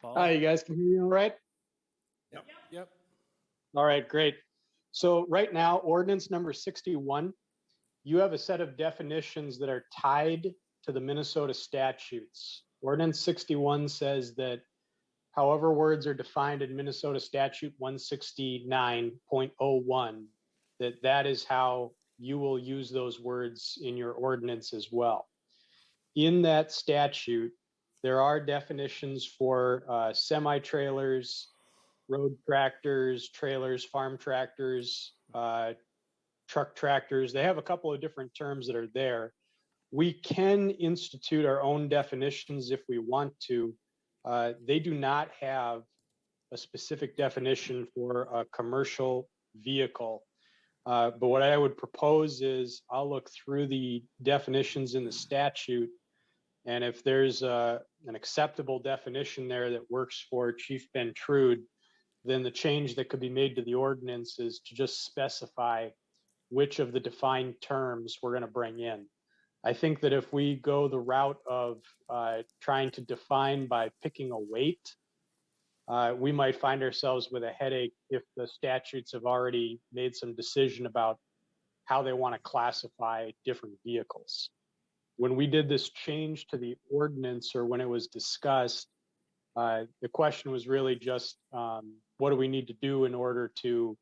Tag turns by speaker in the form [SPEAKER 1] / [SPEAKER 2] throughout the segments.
[SPEAKER 1] Paul?
[SPEAKER 2] Hi, you guys can hear me all right?
[SPEAKER 1] Yep.
[SPEAKER 2] All right, great. So right now, ordinance number 61, you have a set of definitions that are tied to the Minnesota statutes. Ordinance 61 says that however words are defined in Minnesota statute 169.01, that that is how you will use those words in your ordinance as well. In that statute, there are definitions for uh, semi-trailers, road tractors, trailers, farm tractors, uh, truck tractors. They have a couple of different terms that are there. We can institute our own definitions if we want to. Uh, they do not have a specific definition for a commercial vehicle. Uh, but what I would propose is I'll look through the definitions in the statute. And if there's uh, an acceptable definition there that works for Chief Ben Trude, then the change that could be made to the ordinance is to just specify which of the defined terms we're going to bring in. I think that if we go the route of uh, trying to define by picking a weight, uh, we might find ourselves with a headache if the statutes have already made some decision about how they want to classify different vehicles. When we did this change to the ordinance or when it was discussed, uh, the question was really just um, what do we need to do in order to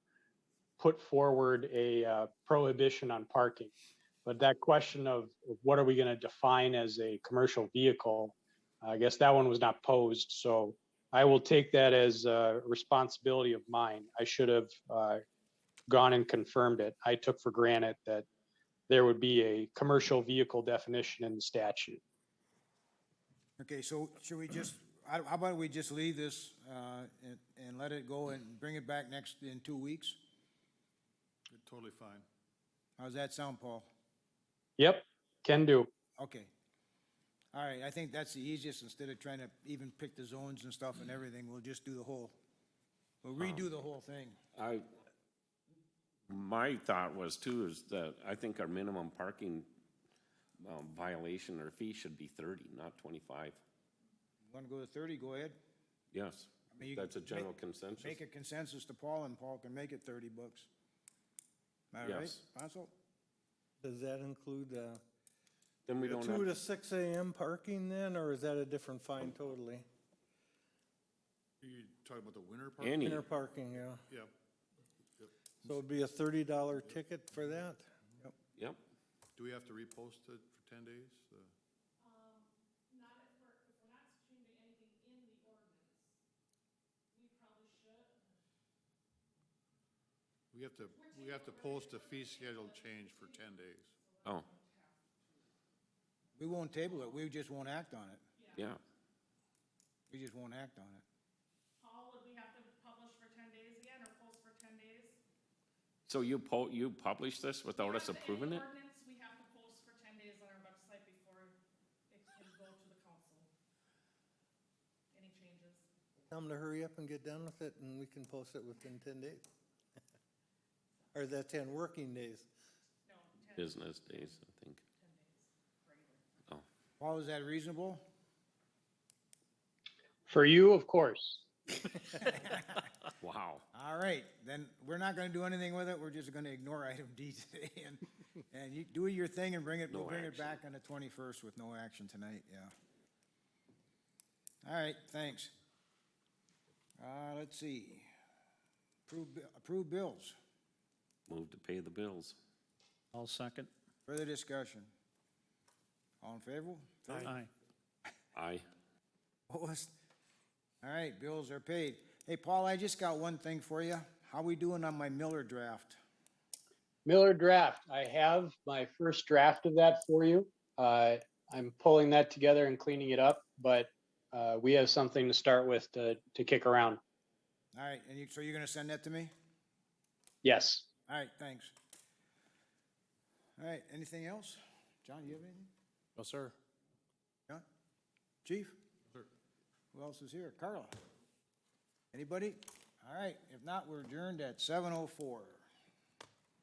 [SPEAKER 2] put forward a uh, prohibition on parking? But that question of of what are we going to define as a commercial vehicle, I guess that one was not posed. So I will take that as a responsibility of mine. I should have uh, gone and confirmed it. I took for granted that there would be a commercial vehicle definition in the statute.
[SPEAKER 3] Okay, so should we just, I- how about we just leave this uh, and- and let it go and bring it back next, in two weeks?
[SPEAKER 4] Totally fine.
[SPEAKER 3] How's that sound, Paul?
[SPEAKER 2] Yep, can do.
[SPEAKER 3] Okay. All right, I think that's the easiest, instead of trying to even pick the zones and stuff and everything, we'll just do the whole, we'll
[SPEAKER 4] Uh-huh.
[SPEAKER 3] redo the whole thing.
[SPEAKER 5] I, my thought was too, is that I think our minimum parking um, violation or fee should be thirty, not twenty-five.
[SPEAKER 3] Want to go to thirty, go ahead.
[SPEAKER 5] Yes,
[SPEAKER 3] mean, you
[SPEAKER 5] that's a
[SPEAKER 3] make-
[SPEAKER 5] general consensus.
[SPEAKER 3] Make a consensus to Paul, and Paul can make it thirty bucks. All right,
[SPEAKER 5] Yes.
[SPEAKER 3] Council?
[SPEAKER 1] Does that include, uh,
[SPEAKER 5] Then we don't
[SPEAKER 1] two to
[SPEAKER 5] have,
[SPEAKER 1] six AM parking then, or is that a different fine totally?
[SPEAKER 4] Are you talking about the winter part?
[SPEAKER 5] any,
[SPEAKER 1] Inner parking, yeah.
[SPEAKER 4] Yeah.
[SPEAKER 1] So it'd be a thirty dollar ticket for that?
[SPEAKER 5] yep,
[SPEAKER 4] Do we have to repost it for ten days? Uh, We have to, we have to post a fee schedule change for ten days.
[SPEAKER 5] oh,
[SPEAKER 3] We won't table it, we just won't act on it.
[SPEAKER 5] yeah,
[SPEAKER 3] We just won't act on it.
[SPEAKER 6] Paul, would we have to publish for ten days again, or post for ten days?
[SPEAKER 5] so you po, you published this without us
[SPEAKER 6] After any
[SPEAKER 5] approving it?
[SPEAKER 6] Ordinance, we have to post for ten days on our website before it can go to the council. Any changes?
[SPEAKER 1] Tell them to hurry up and get done with it and we can post it within ten days. Or is that ten working days?
[SPEAKER 6] No, ten
[SPEAKER 5] Business days, I think, oh.
[SPEAKER 3] Paul, is that reasonable?
[SPEAKER 2] For you, of course.
[SPEAKER 5] Wow.
[SPEAKER 3] All right, then we're not gonna do anything with it, we're just gonna ignore item D today and, and you do your thing and bring it, we'll
[SPEAKER 5] No
[SPEAKER 3] bring it
[SPEAKER 5] action.
[SPEAKER 3] back on the twenty-first with no action tonight, yeah. All right, thanks. Uh, let's see. Approve, bi- approve bills,
[SPEAKER 5] Move to pay the bills.
[SPEAKER 7] I'll second.
[SPEAKER 3] further discussion. All in favor?
[SPEAKER 7] Aye.
[SPEAKER 5] Aye.
[SPEAKER 3] Opposed? All right, bills are paid. Hey, Paul, I just got one thing for you. How we doing on my Miller draft?
[SPEAKER 2] Miller draft. I have my first draft of that for you. Uh, I'm pulling that together and cleaning it up, but uh, we have something to start with to, to kick around.
[SPEAKER 3] All right, and you, so you're gonna send that to me?
[SPEAKER 2] Yes.
[SPEAKER 3] All right, thanks. All right, anything else? John, you have anything?
[SPEAKER 7] No, sir.
[SPEAKER 3] John? Chief? Who else is here? Carla? Anybody? All right, if not, we're adjourned at seven oh four.